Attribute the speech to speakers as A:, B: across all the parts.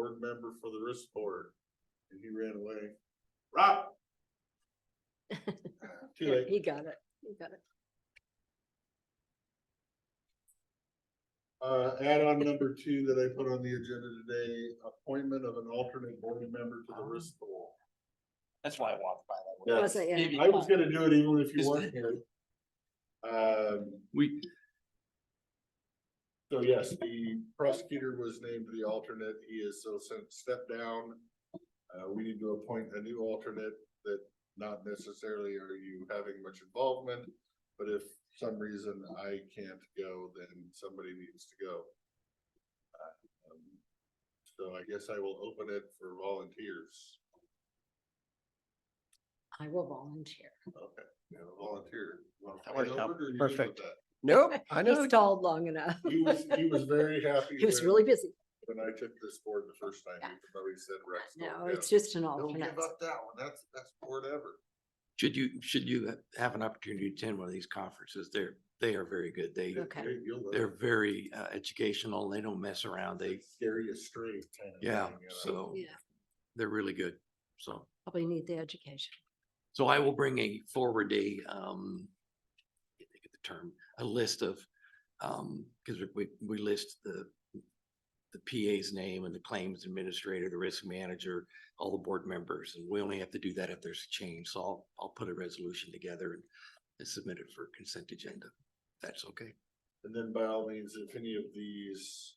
A: board member for the risk board. And he ran away. Rob. Ah, Too late.
B: He got it, he got it.
A: Uh, add-on number two that I put on the agenda today, appointment of an alternate board member to the risk board.
C: That's why I walked by that.
A: Yeah.
C: way.
B: Wasn't it?
C: Maybe-
A: I was gonna do it even if you
C: Just-
A: weren't here. Um,
C: We,
A: so yes, the prosecutor was named the alternate. He is so since stepped down. Uh, we need to appoint a new alternate that not necessarily are you having much involvement. But if some reason I can't go, then somebody needs to go. Uh, um, So I guess I will open it for volunteers.
B: I will volunteer.
A: Okay, you have a volunteer. You wanna
C: That worked
A: fight
C: out
A: over it or you good with
C: perfect.
A: that?
C: nope, I
B: He
C: know.
B: stalled long enough.
A: He was, he was very happy.
B: He was
A: when-
B: really busy.
A: When I took this board the first time,
B: Yeah.
A: he probably said Rex. don't
B: No,
A: give-
B: it's just an
A: Don't
B: alternate.
A: give up that one. That's, that's board ever.
D: Should you, should you have an opportunity to attend one of these conferences? They're, they are very good. They,
B: Okay.
A: Hey, you'll love
D: they're
A: it.
D: very uh, educational. They don't mess around. They,
A: It's Scary as straight. kind of
D: yeah,
A: thing, you know?
D: so
B: Yeah.
D: they're really good. So,
B: Probably need the education.
D: so I will bring a forward a, um, I think of the term, a list of, um, because we, we list the, the PA's name and the claims administrator, the risk manager, all the board members, and we only have to do that if there's a change. So I'll, I'll put a resolution together and submit it for consent agenda. if That's okay.
A: And then by all means, if any of these.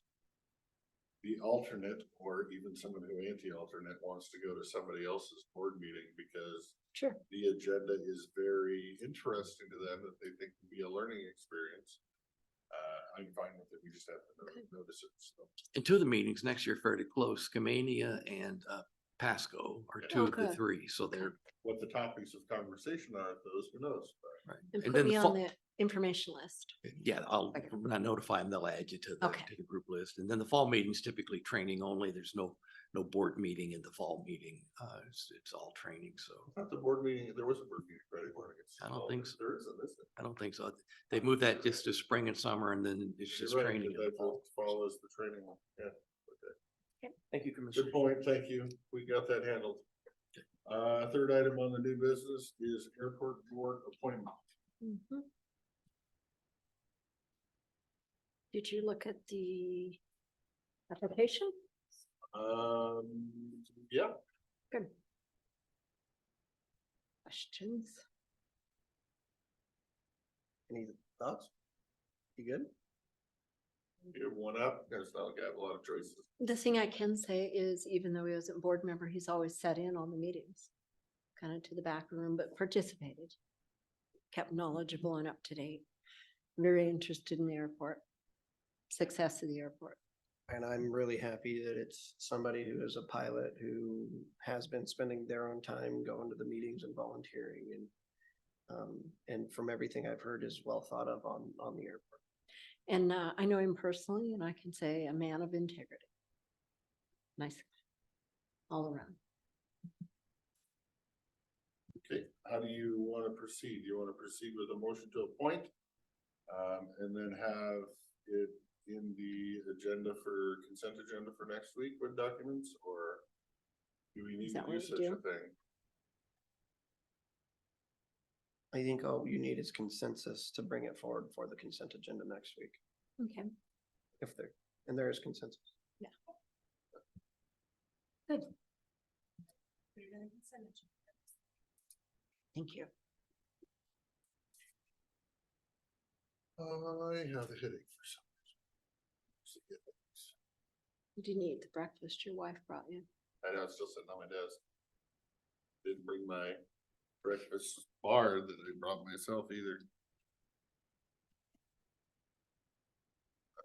A: The alternate or even someone who anti-alternate wants to go to somebody else's board meeting because
B: Sure.
A: the agenda is very interesting to them that they think can be a learning experience. Uh, I'm fine with it. We just have to
B: Okay.
A: no- notice it. So
D: And two of the meetings next year are fairly close, Skamania and uh Pasco are
A: Yeah.
D: two of the
B: Okay.
D: three, so they're.
A: what the topics of conversation are, at those, who knows? But
D: right.
B: And put
D: And then
B: me
D: the
B: on
D: fall,
B: the information list.
D: yeah, I'll,
B: Okay.
D: when I notify them, they'll add you to the,
B: Okay.
D: to the group list. And then the fall meeting's typically training only. There's no, no board meeting in the fall meeting. Uh, it's, it's all training, so
A: I thought the board meeting, there was a board meeting Friday morning. It's-
D: I don't
A: oh,
D: think
A: there-
D: so.
A: There isn't, is it?
D: I don't think so. They moved that just to spring and summer and then it's
A: You're
D: just
A: right,
D: training. in
A: because
D: the
A: that
D: fall.
A: Follows the training one, yeah.
C: Thank you,
A: Good
C: Commissioner.
A: point, thank you. We got that handled. Uh, third item on the new business is airport board appointment.
B: Mhm. Did you look at the application?
A: Um, yeah,
B: Good. Questions?
C: Any thoughts? You good?
A: you're one up, because I got a lot of choices.
B: The thing I can say is even though he wasn't board member, he's always sat in on the meetings. Kind of to the back room, but participated. Kept knowledgeable and up to date. Very interested in the airport. Success of the airport.
C: And I'm really happy that it's somebody who is a pilot who has been spending their own time going to the meetings and volunteering and. Um, and from everything I've heard is well thought of on, on the airport.
B: And uh, I know him personally and I can say a man of integrity. Nice. guy, All around.
A: Okay, how do you want to proceed? You want to proceed with a motion to appoint? Um, and then have it in the agenda for consent agenda for next week with documents or? Do we need to
B: that
A: do
B: what we
A: such a
B: do?
A: thing?
C: I think all you need is consensus to bring it forward for the consent agenda next week,
B: Okay,
C: if there, and there is consensus.
B: good. Thank you.
A: I have a headache for some reason.
B: You didn't eat the breakfast your wife brought you.
A: I know, it's still sitting on my desk. Didn't bring my breakfast bar that I brought myself either.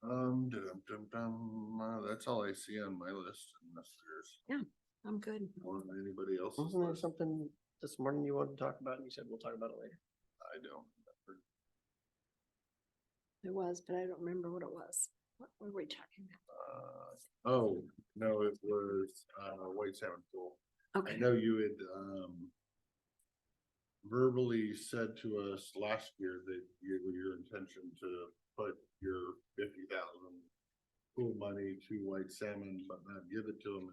A: Um, dum dum dum, uh, that's all I see on my list unless there's
B: I'm good.
A: more on anybody else's
C: Wasn't there
A: list.
C: something this morning you wanted to talk about and you said we'll talk about it later?
A: I don't. remember.
B: It was, but I don't remember what it was. What were we talking
A: Uh, Oh, no, it was, uh, White Salmon Pool. I
B: about? Okay,
A: know you had, um, verbally said to us last year that you, your intention to put your fifty thousand pool money to White Salmon, but not give it to them